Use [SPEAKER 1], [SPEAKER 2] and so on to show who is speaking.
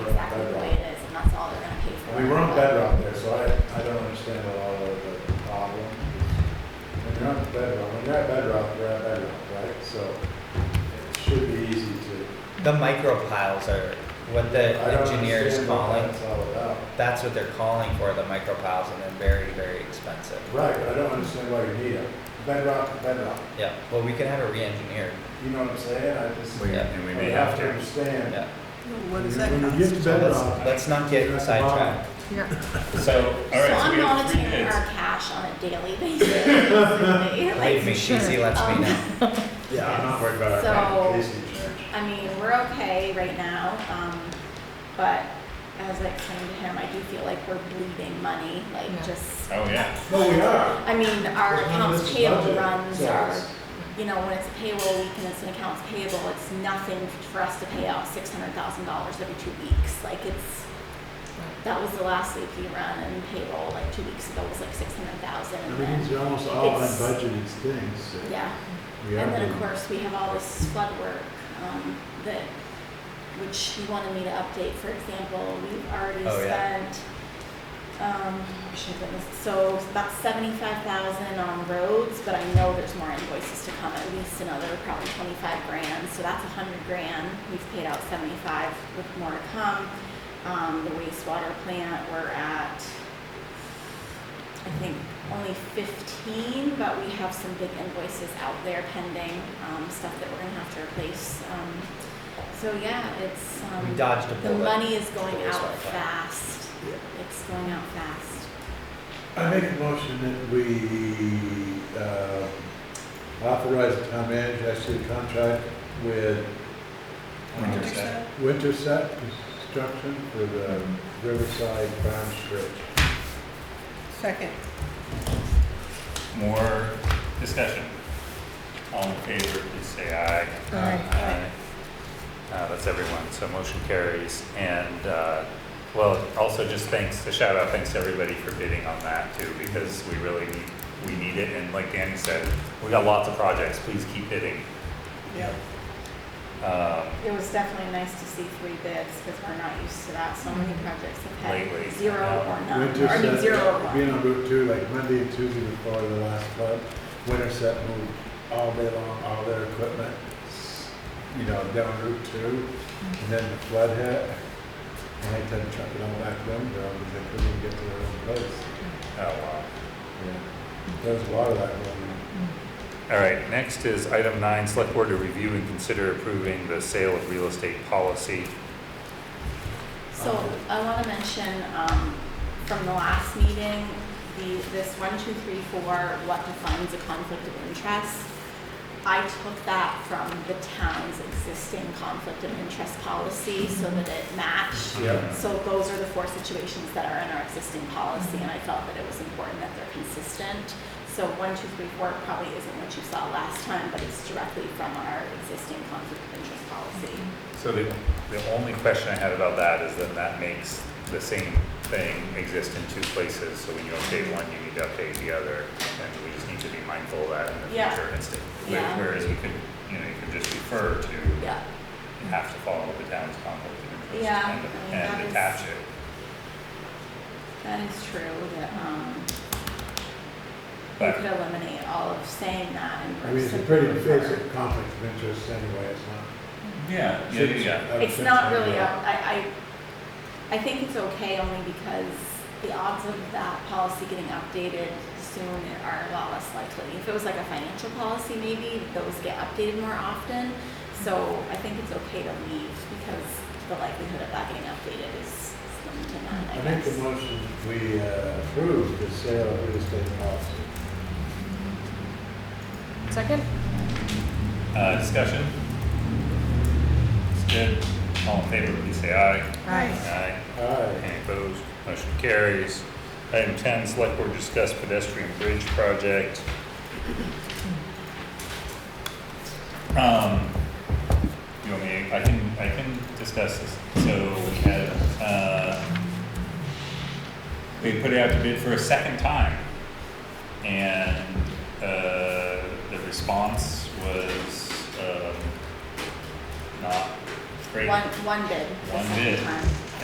[SPEAKER 1] the micro piles are what the
[SPEAKER 2] I don't
[SPEAKER 1] engineer is
[SPEAKER 2] understand what
[SPEAKER 1] calling.
[SPEAKER 2] That's all about.
[SPEAKER 1] That's what they're calling for, the micro piles, and they're very, very expensive.
[SPEAKER 2] Right, but I don't understand why you need it. Bedrock, bedrock.
[SPEAKER 1] Yeah, well, we can have it re-engineered.
[SPEAKER 2] You know what I'm saying? I just,
[SPEAKER 3] We-
[SPEAKER 1] Yeah.
[SPEAKER 3] And we
[SPEAKER 2] I
[SPEAKER 3] may
[SPEAKER 2] have
[SPEAKER 3] have
[SPEAKER 2] to
[SPEAKER 3] to.
[SPEAKER 2] understand.
[SPEAKER 1] Yeah,
[SPEAKER 4] What does that
[SPEAKER 2] When you get to
[SPEAKER 4] cost?
[SPEAKER 1] so let's,
[SPEAKER 2] bedrock.
[SPEAKER 1] let's not get sidetracked.
[SPEAKER 4] Yeah.
[SPEAKER 3] So, all
[SPEAKER 5] So
[SPEAKER 3] right, so
[SPEAKER 5] I'm
[SPEAKER 3] we have three
[SPEAKER 5] monitoring
[SPEAKER 3] bids.
[SPEAKER 5] our cash on a daily basis. basically.
[SPEAKER 1] Believe me,
[SPEAKER 5] Like,
[SPEAKER 1] Shizzy lets me
[SPEAKER 5] Um,
[SPEAKER 1] know.
[SPEAKER 3] Yeah, I'm not worried about our.
[SPEAKER 5] So,
[SPEAKER 2] Casey Church.
[SPEAKER 5] I mean, we're okay right now, um, but as I explained to him, I do feel like we're bleeding money, like
[SPEAKER 4] Yeah.
[SPEAKER 5] just,
[SPEAKER 3] Oh, yeah.
[SPEAKER 2] No, we are.
[SPEAKER 5] I mean, our
[SPEAKER 2] Well, none of this
[SPEAKER 5] accounts
[SPEAKER 2] is
[SPEAKER 5] payable
[SPEAKER 2] budgeted,
[SPEAKER 5] runs
[SPEAKER 2] so
[SPEAKER 5] are,
[SPEAKER 2] it's-
[SPEAKER 5] you know, when it's a payroll week and it's an accounts payable, it's nothing for us to pay out six hundred thousand dollars every two weeks, like it's, that was the last AP run and payroll, like two weeks ago was like six hundred thousand and then.
[SPEAKER 2] Everything's almost all
[SPEAKER 5] It's-
[SPEAKER 2] unbudgeted things. so
[SPEAKER 5] Yeah,
[SPEAKER 2] we are
[SPEAKER 5] and then of
[SPEAKER 2] doing-
[SPEAKER 5] course, we have all this flood work, um, that, which he wanted me to update, for example, we've already
[SPEAKER 1] Oh, yeah.
[SPEAKER 5] spent, um, I should have written this- so about seventy-five thousand on roads, but I know there's more invoices to come, at least another probably twenty-five grand, so that's a hundred grand, we've paid out seventy-five with more to come. Um, the wastewater plant, we're at, I think only fifteen, but we have some big invoices out there pending, um, stuff that we're gonna have to replace, um, so yeah, it's, um.
[SPEAKER 1] We dodged a
[SPEAKER 5] The
[SPEAKER 1] bullet.
[SPEAKER 5] money is going
[SPEAKER 1] Bullet's
[SPEAKER 5] out
[SPEAKER 1] not fun.
[SPEAKER 5] fast,
[SPEAKER 2] Yeah.
[SPEAKER 5] it's going out fast.
[SPEAKER 2] I make a motion that we uh, authorize the town manager to execute a contract with
[SPEAKER 3] Understand.
[SPEAKER 2] Winterset Construction for the Riverside Farm Stretch.
[SPEAKER 4] Second.
[SPEAKER 3] More discussion. All in favor, please say aye.
[SPEAKER 4] Aye.
[SPEAKER 3] Uh, that's everyone, so motion carries. And, uh, well, also just thanks, a shout out, thanks to everybody for bidding on that too, because we really need, we need it. And like Danny said, we got lots of projects, please keep bidding.
[SPEAKER 4] Yeah.
[SPEAKER 3] Um,
[SPEAKER 5] It was definitely nice to see three bids, because we're not used to that, so many projects have
[SPEAKER 3] Lately,
[SPEAKER 5] had zero
[SPEAKER 3] yeah.
[SPEAKER 5] or none, or I mean, zero or
[SPEAKER 2] Winterset,
[SPEAKER 5] one.
[SPEAKER 2] being on Route Two, like Monday and Tuesday before the last flood, Winterset moved all day long, all their equipment, you know, down Route Two, and then the flood hit. And they had to truck it all back down, because they couldn't even get to their own place.
[SPEAKER 3] oh, wow.
[SPEAKER 2] There was a lot of that going on.
[SPEAKER 3] All right, next is item nine, select board to review and consider approving the sale of real estate policy.
[SPEAKER 5] So I want to mention, um, from the last meeting, the, this one, two, three, four, what defines a conflict of interest. I took that from the town's existing conflict of interest policy so that it matched.
[SPEAKER 2] Yeah.
[SPEAKER 5] So those are the four situations that are in our existing policy, and I felt that it was important that they're consistent. So one, two, three, four probably isn't what you saw last time, but it's directly from our existing conflict of interest policy.
[SPEAKER 3] So the, the only question I had about that is then that makes the same thing exist in two places. So when you update one, you need to update the other, and we just need to be mindful of that in the
[SPEAKER 5] Yeah.
[SPEAKER 3] future instant.
[SPEAKER 5] Yeah.
[SPEAKER 3] Whereas we could, you know, you could just refer to, you
[SPEAKER 5] Yeah.
[SPEAKER 3] have to follow the town's conflict of interest
[SPEAKER 5] Yeah,
[SPEAKER 3] and,
[SPEAKER 5] I mean, that
[SPEAKER 3] and
[SPEAKER 5] is-
[SPEAKER 3] attach it.
[SPEAKER 5] That is true, that, um, you
[SPEAKER 3] But-
[SPEAKER 5] could eliminate all of saying that and.
[SPEAKER 2] I mean, it's a
[SPEAKER 5] simply
[SPEAKER 2] pretty
[SPEAKER 5] refer.
[SPEAKER 2] basic conflict of interest anyway, it's not.
[SPEAKER 3] Yeah, yeah, yeah.
[SPEAKER 2] I would
[SPEAKER 5] It's
[SPEAKER 2] think
[SPEAKER 5] not
[SPEAKER 2] so,
[SPEAKER 5] really, a-
[SPEAKER 2] yeah.
[SPEAKER 5] I, I, I think it's okay only because the odds of that policy getting updated soon are a lot less likely. If it was like a financial policy maybe, those get updated more often. So I think it's okay to leave because the likelihood of that getting updated is slim to none, I
[SPEAKER 2] I make
[SPEAKER 5] guess.
[SPEAKER 2] the motion, we uh, approve the sale of real estate policy.
[SPEAKER 4] Second?
[SPEAKER 3] Uh, discussion? It's good. All in favor, please say aye.
[SPEAKER 4] Aye.
[SPEAKER 3] Aye.
[SPEAKER 2] Aye.
[SPEAKER 3] Any opposed? Motion carries. Item ten, select board discuss pedestrian bridge project. Um, you want me, I can, I can discuss this. So we had, uh, we put it out to bid for a second time. And, uh, the response was, um, not great.
[SPEAKER 5] One, one bid. the
[SPEAKER 3] One
[SPEAKER 5] second
[SPEAKER 3] bid.
[SPEAKER 5] time.